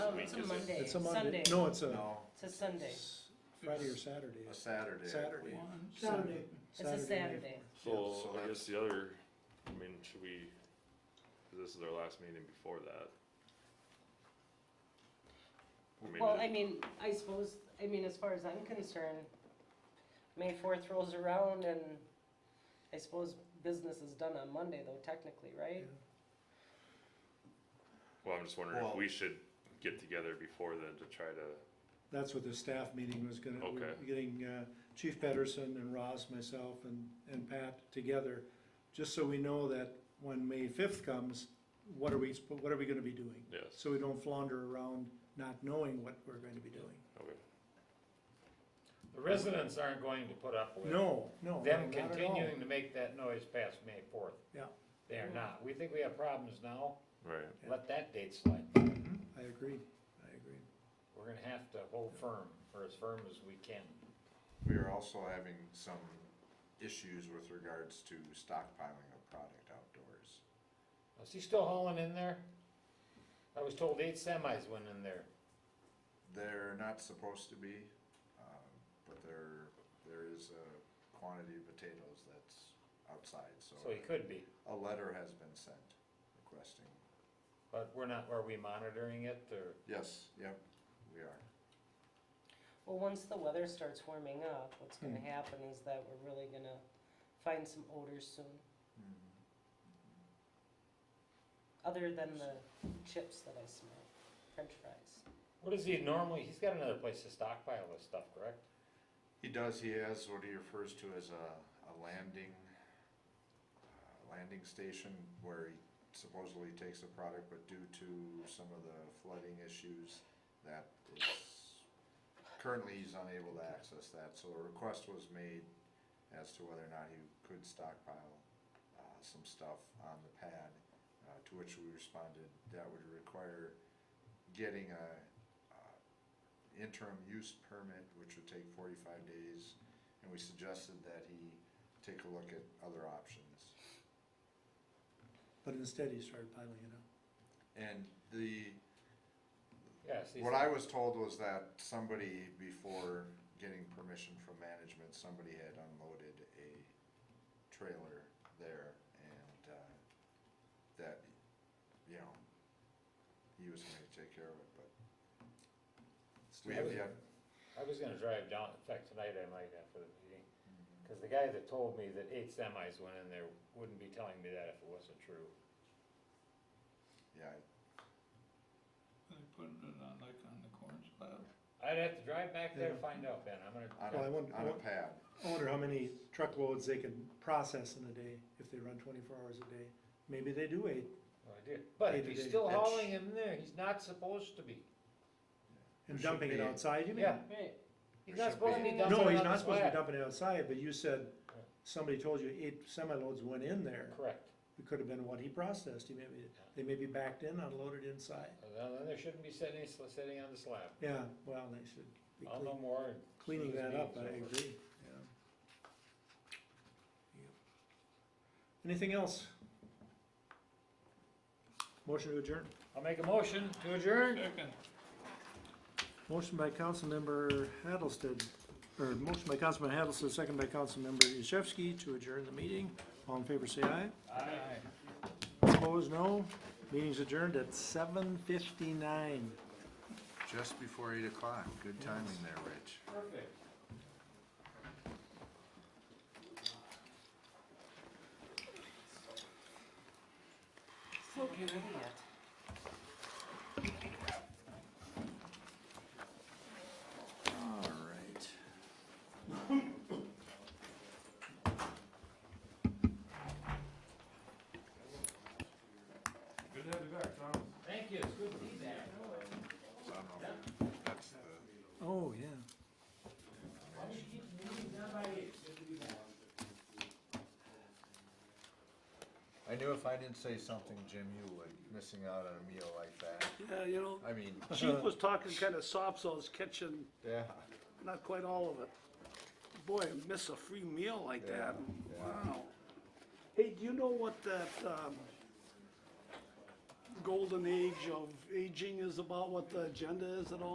It's a Monday. It's a Monday, Sunday. no, it's a No, It's a Sunday. Friday or Saturday. uh, a Saturday. I Saturday. believe. Saturday. It's a Saturday. Yeah, so So I that's- guess the other, I mean, should we, 'cause this is our last meeting before that. I mean, Well, it- I mean, I suppose, I mean, as far as I'm concerned, May fourth rolls around and I suppose business is done on Monday though technically, right? well, I'm just wondering if Well- we should get together before then to try to, That's what the staff meeting was gonna, we we're Okay. getting uh, Chief Pedersen and Ross, myself and, and Pat together, just so we know that when May fifth comes, what are we, sp- what are we gonna be doing? yes, So we don't flounder around not knowing what we're going to be doing. okay. The residents aren't going to put up with No, no, them not at all. continuing to make that noise past May fourth. Yeah. They are not. We think we have problems now, Right, Yeah. let that date slide. I agree, I agree. We're gonna have to hold firm, or as firm as we can. We are also having some issues with regards to stockpiling of product outdoors. Is he still hauling in there? I was told eight semis went in there. They're not supposed to be, um, but there, there is a quantity of potatoes that's outside, so. So he could be, A letter has been sent requesting, but we're not, are we monitoring it or? yes, yep, we are. Well, once the weather starts warming up, what's gonna Hmm. happen is that we're really gonna find some odors soon, other than the chips that I smell, french fries. What does he normally, he's got another place to stockpile this stuff, correct? He does, he has what he refers to as a, a landing, uh, landing station where he supposedly takes the product, but due to some of the flooding issues, that is, currently he's unable to access that, so a request was made as to whether or not he could stockpile, uh, some stuff on the pad, uh, to which we responded, that would require getting a, uh, interim use permit, which would take forty-five days, and we suggested that he take a look at other options. But instead, he started piling it up. And the, Yes, he's, what I was told was that somebody, before getting permission from management, somebody had unloaded a trailer there, and, uh, that, you know, he was gonna take care of it, but we have yet, I was gonna drive down, in fact, tonight I might after the meeting. Mm-hmm. Cause the guy that told me that eight semis went in there wouldn't be telling me that if it wasn't true. yeah, They putting it on like on the corn slab. I'd have to drive back there to find out, Ben, I'm gonna, on Well, I wouldn't- I a, on a wouldn't- pad. I wonder how many truckloads they can process in a day if they run twenty-four hours a day. Maybe they do eight. no idea. But Day if to he's day. still That's- hauling him there, he's not supposed to be. And There should dumping it be- outside, you mean? Yeah, Right. he's There not should supposed to be. be No, dumping No, it he's on the not supposed to be slab. dumping it outside, but you said, Yeah. somebody told you eight semi-loads went in there. Correct. It could have been what he processed, he maybe, they may be backed in, unloaded inside. Well, Then there shouldn't be sitting, sitting on the slab. Yeah, well, they should be I'll know clean- more. as cleaning soon as that the up, I meeting's over. agree, yeah. Yep. Anything else? Motion to adjourn. I'll make a motion to adjourn. Second. Motion by Councilmember Hattlested, or motion by Councilman Hattlested, second by Councilmember Yashewski to adjourn the meeting. All in favor, say aye. Aye. Opposed, no. Meeting's adjourned at seven fifty-nine. Just before eight o'clock, good timing there, Rich. Perfect. So get rid of it. All right. Thank you, it's good to be back. So I don't know if that's the. Oh, yeah. I knew if I didn't say something, Jim, you would, missing out on a meal like that. Yeah, you know, I mean, Chief was talking kind of soft, so I was catching yeah, not quite all of it. Boy, I miss a free meal like that. Wow. Hey, do you know what that, um, golden age of aging is about what the agenda is at all.